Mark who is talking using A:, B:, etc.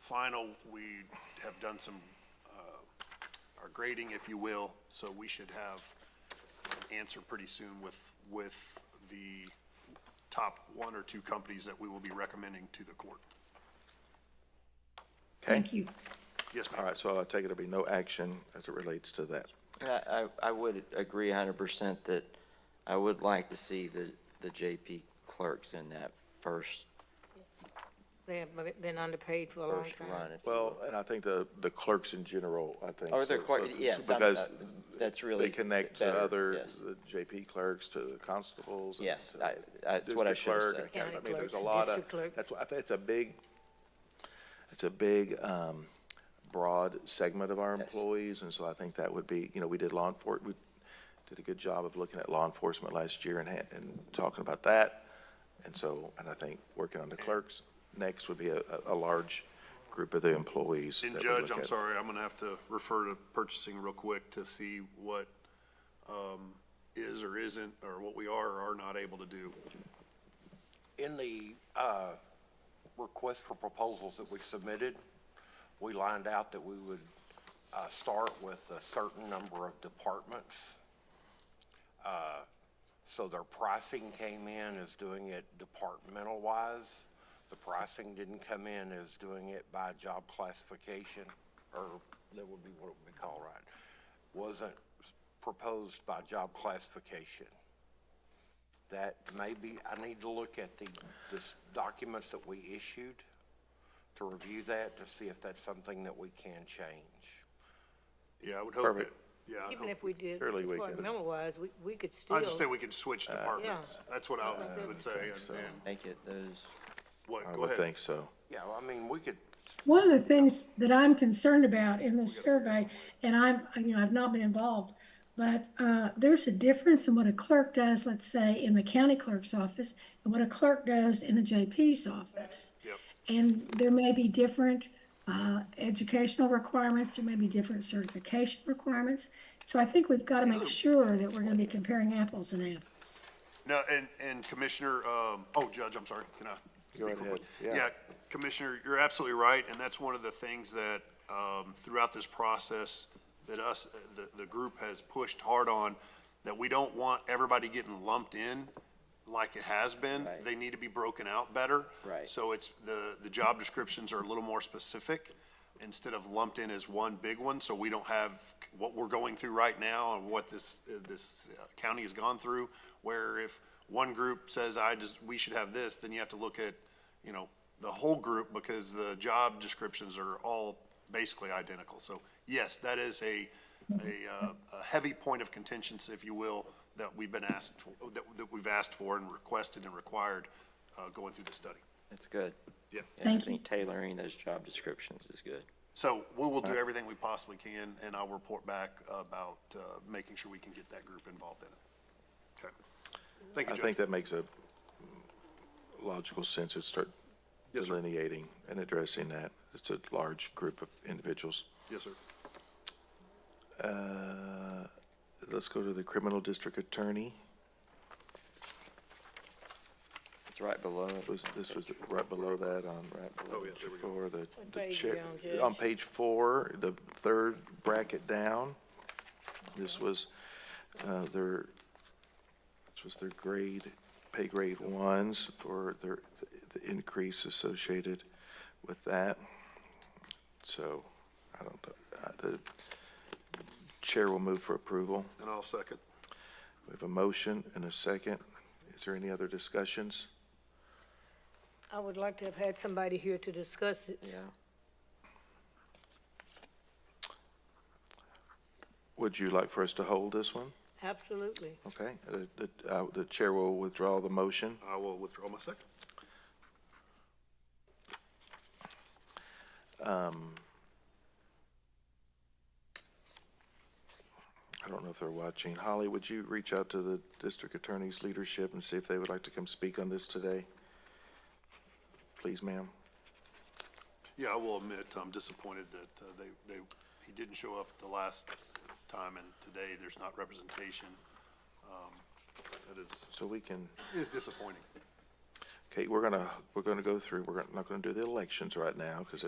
A: final, we have done some, uh, our grading, if you will, so we should have an answer pretty soon with, with the top one or two companies that we will be recommending to the court.
B: Okay,
C: Thank you.
A: Yes,
B: all
A: ma'am.
B: right, so I take it there'll be no action as it relates to that.
D: And I, I I would agree hundred percent that I would like to see the, the JP clerks in that first,
E: They have been underpaid
C: Oh,
E: for a long
D: first
E: time.
D: run. if you
B: Well,
D: will.
B: and I think the, the clerks in general, I think.
D: Or the
B: so-
D: clerk-
B: so-
D: yes, I'm-
B: Because
D: uh, that's really
B: They connect to
D: better,
B: other,
D: yes.
B: the JP clerks, to the constables. and
D: Yes,
B: to
D: I- that's what I
B: district
D: should've
B: clerk,
D: said.
B: and county- I
E: County
B: mean, there's a
E: clerks and
B: lot
E: district
B: of,
E: clerks.
B: that's why, I think it's a big, it's a big, um, broad segment of our
D: Yes.
B: employees, and so I think that would be, you know, we did law enfor, we did a good job of looking at law enforcement last year and, ha- and talking about that. And so, and I think working on the clerks next would be a, a, a large group of the employees.
A: And
B: that we
A: Judge,
B: look
A: I'm
B: at.
A: sorry, I'm gonna have to refer to purchasing real quick to see what, um, is or isn't, or what we are or are not able to do.
F: In the uh, request for proposals that we submitted, we lined out that we would uh, start with a certain number of departments. Uh, So their pricing came in as doing it departmental-wise. The pricing didn't come in as doing it by job classification, or that would be what it would be called, right? Wasn't proposed by job classification that maybe I need to look at the, the s- documents that we issued to review that, to see if that's something that we can change.
A: Yeah, I would hope that,
B: Perfect.
A: yeah. I'd
E: Even
A: hope-
E: if we did
B: Fairly we could.
E: departmental-wise, we, we could still.
A: I just say we can switch
B: Uh,
A: departments.
E: Yeah.
A: That's what I was-
E: think
A: would
E: so.
A: say, and- and
D: Make it those,
A: what,
B: I
A: go
B: would
A: ahead.
B: think so.
F: Yeah, well, I mean, we could,
C: One of the things that I'm concerned about in this survey, and I'm, you know, I've not been involved, but uh, there's a difference in what a clerk does, let's say, in the county clerk's office and what a clerk does in the JP's office.
A: Yep.
C: And there may be different uh, educational requirements, there may be different certification requirements. So I think we've got to make sure that we're going to be comparing apples and apples.
A: No, and, and Commissioner, um, oh, Judge, I'm sorry, can I?
B: Go
A: speak real
B: ahead,
A: quick?
B: yeah.
A: Yeah, Commissioner, you're absolutely right, and that's one of the things that, um, throughout this process, that us, the, the group has pushed hard on, that we don't want everybody getting lumped in like it has been.
D: Right.
A: They need to be broken out better.
D: Right.
A: So it's, the, the job descriptions are a little more specific instead of lumped in as one big one, so we don't have what we're going through right now and what this, uh, this uh, county has gone through, where if one group says, I just, we should have this, then you have to look at, you know, the whole group because the job descriptions are all basically identical. So yes, that is a, a, uh, a heavy point of contention, if you will, that we've been asked, for- that, that we've asked for and requested and required, uh, going through the study.
D: that's good.
A: Yeah.
D: Yeah, I
C: Thank you.
D: think tailoring those job descriptions is good.
A: So we will do everything we possibly can, and I'll report back about uh, making sure we can get that group involved in it. Okay. Thank
B: I
A: you, Judge.
B: think that makes a logical sense to start
A: Yes, sir.
B: delineating and addressing that. It's a large group of individuals.
A: Yes, sir.
B: Uh, Let's go to the criminal district attorney.
D: It's right below it.
B: Was, this was right below that on, right below
A: Oh, yeah, there we
B: page four, the, the
E: page
B: chair.
E: are you on, Judge?
B: On page four, the third bracket down. This was, uh, their, this was their grade, pay grade ones for their, the increase associated with that. So, I don't, know, uh, the chair will move for approval.
A: And I'll second.
B: We have a motion and a second. Is there any other discussions?
E: I would like to have had somebody here to discuss it.
D: Yeah.
B: Would you like for us to hold this one?
E: Absolutely.
B: Okay, uh, the, uh, the chair will withdraw the motion.
A: I will withdraw my second.
B: Um, I don't know if they're watching. Holly, would you reach out to the district attorney's leadership and see if they would like to come speak on this today? Please, ma'am.
A: Yeah, I will admit, I'm disappointed that uh, they, they, he didn't show up the last time, and today there's not representation. Um, That is,
B: So we can,
A: is disappointing.
B: okay, we're gonna, we're gonna go through, we're not gonna do the elections right now because